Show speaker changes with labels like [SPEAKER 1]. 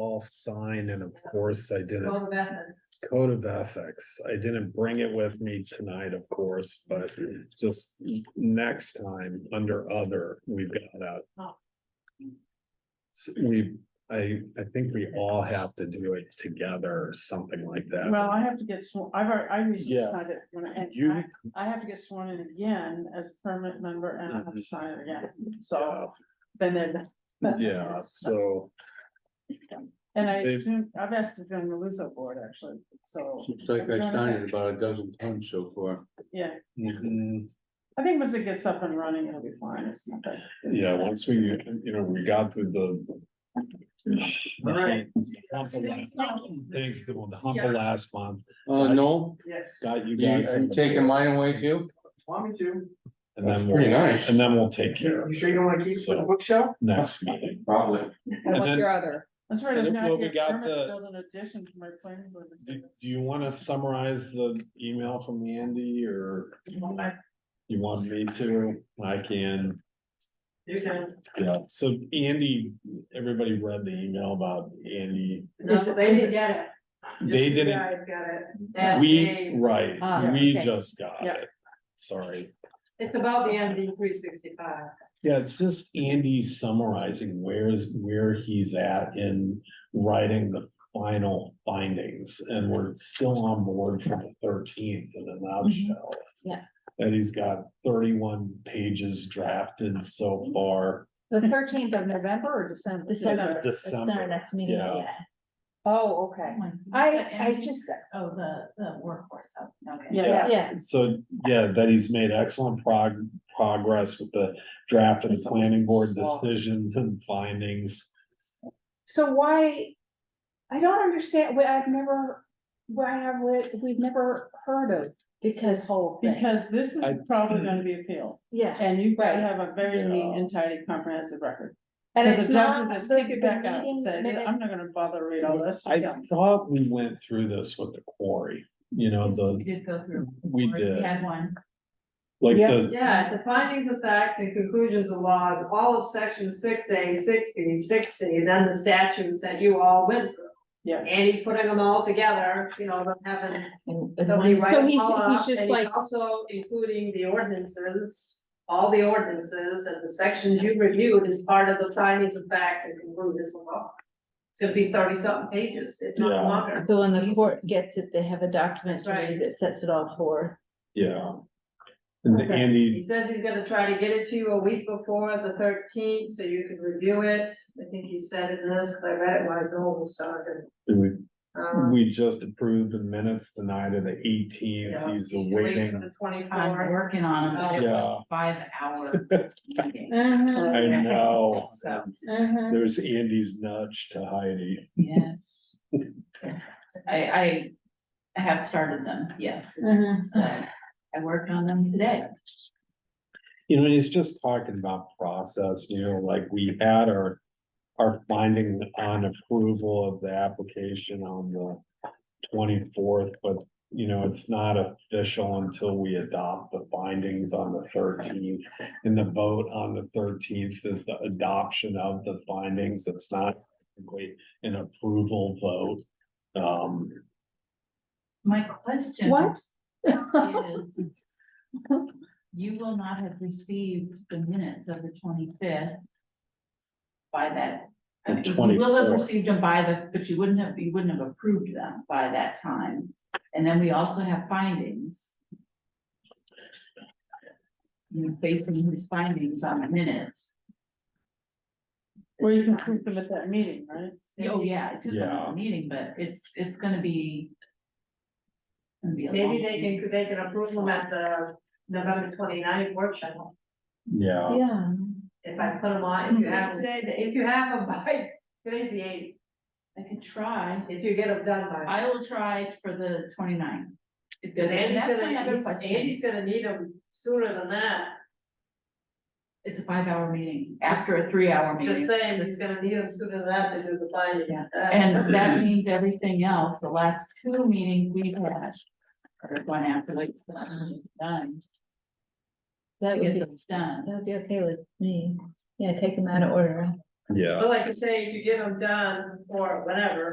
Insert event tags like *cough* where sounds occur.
[SPEAKER 1] self sign and of course I didn't
[SPEAKER 2] Well, that,
[SPEAKER 1] code of ethics. I didn't bring it with me tonight, of course, but just next time under other, we've got a.
[SPEAKER 2] Oh.
[SPEAKER 1] S- We, I, I think we all have to do it together or something like that.
[SPEAKER 3] Well, I have to get sworn, I've, already- I recently
[SPEAKER 1] Yeah.
[SPEAKER 3] signed it when I, and
[SPEAKER 1] You,
[SPEAKER 3] I, I have to get sworn in again as permanent member and I have to sign it again,
[SPEAKER 1] yeah,
[SPEAKER 3] so. Been there. done that.
[SPEAKER 1] yeah,
[SPEAKER 2] *laughs*
[SPEAKER 1] so,
[SPEAKER 3] And I
[SPEAKER 1] They've-
[SPEAKER 3] assume, I've asked to join the Luso board actually, so,
[SPEAKER 4] Looks like I started about a dozen times so far.
[SPEAKER 3] yeah,
[SPEAKER 1] mhm.
[SPEAKER 3] I think once it gets up and running, it'll be fine, it's not that.
[SPEAKER 1] Yeah, once we, you know, we got through the.
[SPEAKER 3] Right.
[SPEAKER 1] Hump of last- Thanks, the one, the hump of last month,
[SPEAKER 4] Uh, no,
[SPEAKER 3] Yes.
[SPEAKER 1] got you
[SPEAKER 4] you, are
[SPEAKER 1] guys.
[SPEAKER 4] you taking mine away too?
[SPEAKER 5] Want me to?
[SPEAKER 1] And then
[SPEAKER 4] Pretty
[SPEAKER 1] we'll,
[SPEAKER 4] nice.
[SPEAKER 1] and then we'll take care of
[SPEAKER 5] You
[SPEAKER 1] it
[SPEAKER 5] sure you don't wanna keep it for the bookshelf?
[SPEAKER 1] next meeting.
[SPEAKER 4] Probably.
[SPEAKER 1] And
[SPEAKER 2] and what's
[SPEAKER 1] then-
[SPEAKER 2] your other?
[SPEAKER 3] That's right, it's
[SPEAKER 1] Well,
[SPEAKER 3] now
[SPEAKER 1] we
[SPEAKER 3] your
[SPEAKER 1] got
[SPEAKER 3] permit
[SPEAKER 1] the-
[SPEAKER 3] to build an addition to my planning board.
[SPEAKER 1] Do, do you wanna summarize the email from Andy or you want me to? I can,
[SPEAKER 3] You can,
[SPEAKER 1] yeah, so Andy, everybody read the email about Andy.
[SPEAKER 2] No, they didn't get it.
[SPEAKER 1] They didn't,
[SPEAKER 2] Guys got it. That
[SPEAKER 1] we,
[SPEAKER 2] they-
[SPEAKER 1] right,
[SPEAKER 2] Ah,
[SPEAKER 1] we
[SPEAKER 2] okay.
[SPEAKER 1] just got
[SPEAKER 3] Yeah.
[SPEAKER 1] it. Sorry.
[SPEAKER 2] It's about the MD three sixty-five.
[SPEAKER 1] Yeah, it's just Andy summarizing where's, where he's at in writing the final findings, and we're still on board for the thirteenth in a nutshell.
[SPEAKER 6] Mm-hmm.
[SPEAKER 2] Yeah.
[SPEAKER 1] And he's got thirty-one pages drafted so far.
[SPEAKER 2] The thirteenth of November or December?
[SPEAKER 3] December.
[SPEAKER 6] It's not our
[SPEAKER 1] December,
[SPEAKER 6] next meeting,
[SPEAKER 1] yeah.
[SPEAKER 6] but yeah.
[SPEAKER 2] Oh, okay.
[SPEAKER 6] I, I just,
[SPEAKER 2] Oh, the, the workforce, okay.
[SPEAKER 3] yeah,
[SPEAKER 6] yeah,
[SPEAKER 1] so, yeah, that he's made excellent prog- progress with the draft of the planning board decisions and findings.
[SPEAKER 6] so why? I don't understand, we, I've never, why have, we, we've never heard of this
[SPEAKER 2] Because,
[SPEAKER 6] whole thing.
[SPEAKER 3] because this is
[SPEAKER 1] I- Mm-hmm.
[SPEAKER 3] probably gonna be appealed,
[SPEAKER 6] Yeah,
[SPEAKER 3] and you've gotta
[SPEAKER 6] Right.
[SPEAKER 3] have a very neat
[SPEAKER 1] Yeah.
[SPEAKER 3] and tidy comprehensive record.
[SPEAKER 6] and
[SPEAKER 3] Cause
[SPEAKER 6] it's
[SPEAKER 3] the
[SPEAKER 6] not.
[SPEAKER 3] judge would just
[SPEAKER 6] the-
[SPEAKER 3] kick it
[SPEAKER 6] the
[SPEAKER 3] back out and
[SPEAKER 6] meeting
[SPEAKER 3] say,
[SPEAKER 6] minutes-
[SPEAKER 3] I'm not gonna bother read all this.
[SPEAKER 1] I
[SPEAKER 3] Yeah.
[SPEAKER 1] thought we went through this with the quarry, you know, the,
[SPEAKER 2] we did go through.
[SPEAKER 1] we did.
[SPEAKER 2] had one.
[SPEAKER 1] Like
[SPEAKER 6] Yeah.
[SPEAKER 1] the,
[SPEAKER 7] Yeah, it's a findings of facts and conclusions of laws, all of section six A, six B, six C, and then the statutes that you all went through.
[SPEAKER 3] Yeah.
[SPEAKER 7] And he's putting them all together, you know, them having
[SPEAKER 6] and- and
[SPEAKER 7] somebody
[SPEAKER 6] one-
[SPEAKER 7] write
[SPEAKER 6] So
[SPEAKER 7] them
[SPEAKER 6] he's,
[SPEAKER 7] all
[SPEAKER 6] he's
[SPEAKER 7] up,
[SPEAKER 6] just
[SPEAKER 7] and he's
[SPEAKER 6] like,
[SPEAKER 7] also including the ordinances, all the ordinances and the sections you reviewed as part of the findings of facts and conclusions of law. It's gonna be thirty something pages, if
[SPEAKER 1] Yeah.
[SPEAKER 7] not longer.
[SPEAKER 6] though when the court gets it, they have a document to
[SPEAKER 7] Right.
[SPEAKER 6] read that sets it all forth.
[SPEAKER 1] yeah. And
[SPEAKER 3] Okay.
[SPEAKER 1] Andy,
[SPEAKER 7] He says he's gonna try to get it to you a week before the thirteenth, so you can review it. I think he said it in this, cause I read it when I Google started.
[SPEAKER 1] we,
[SPEAKER 7] Um,
[SPEAKER 1] we just approved the minutes tonight of the eighteenth,
[SPEAKER 7] yeah,
[SPEAKER 1] he's
[SPEAKER 7] just waiting
[SPEAKER 1] awaiting,
[SPEAKER 7] for The twenty-four.
[SPEAKER 2] I'm working on them, but it
[SPEAKER 1] Yeah.
[SPEAKER 2] was five hour. meeting.
[SPEAKER 6] Mhm,
[SPEAKER 1] I
[SPEAKER 2] *laughs*
[SPEAKER 1] know,
[SPEAKER 2] So,
[SPEAKER 6] mhm.
[SPEAKER 1] there's Andy's nudge to Heidi.
[SPEAKER 2] yes. I, I, I have started them, yes.
[SPEAKER 6] Mhm.
[SPEAKER 2] So I worked on them today.
[SPEAKER 1] You know, he's just talking about process, you know, like we had our, our finding on approval of the application on the twenty-fourth, but, you know, it's not official until we adopt the findings on the thirteenth. And the vote on the thirteenth is the adoption of the findings, it's not technically an approval vote. Um,
[SPEAKER 2] My question.
[SPEAKER 6] What?
[SPEAKER 2] is You will not have received the minutes of the twenty-fifth by that. I mean,
[SPEAKER 1] The
[SPEAKER 2] You will have
[SPEAKER 1] 24th.
[SPEAKER 2] received them by the, but you wouldn't have, you wouldn't have approved them by that time. And then we also have findings. You're basing his findings on the minutes.
[SPEAKER 3] Or you can prove them at that meeting, right?
[SPEAKER 2] Oh, yeah, I took them at
[SPEAKER 1] Yeah.
[SPEAKER 2] the meeting, but it's, it's gonna be. gonna be a
[SPEAKER 7] Maybe
[SPEAKER 2] long
[SPEAKER 7] they
[SPEAKER 2] meeting.
[SPEAKER 7] can, they can approve them at the November 29th workshop.
[SPEAKER 1] yeah,
[SPEAKER 6] Yeah,
[SPEAKER 7] If I put them on, if you have today, if you have them by, today's the eighth,
[SPEAKER 2] I could try.
[SPEAKER 7] if you get them done by.
[SPEAKER 2] I will try for the 29th. If
[SPEAKER 7] Cause
[SPEAKER 2] there's- and
[SPEAKER 7] Andy's
[SPEAKER 2] that's my other
[SPEAKER 7] gonna, he's-
[SPEAKER 2] question.
[SPEAKER 7] Andy's gonna need them sooner than that.
[SPEAKER 2] It's a five hour meeting, after a three hour meeting.
[SPEAKER 7] Just saying, he's gonna need them sooner than that to do the finding.
[SPEAKER 2] Yeah.
[SPEAKER 7] Uh,
[SPEAKER 2] And that means everything else, the last two meetings we've had. Or one after like, done,
[SPEAKER 6] that
[SPEAKER 2] to
[SPEAKER 6] would
[SPEAKER 2] get
[SPEAKER 6] be,
[SPEAKER 2] those done.
[SPEAKER 6] that would be okay with me. Yeah, take them out of order.
[SPEAKER 1] Yeah.
[SPEAKER 7] But like I say, if you get them done or whenever,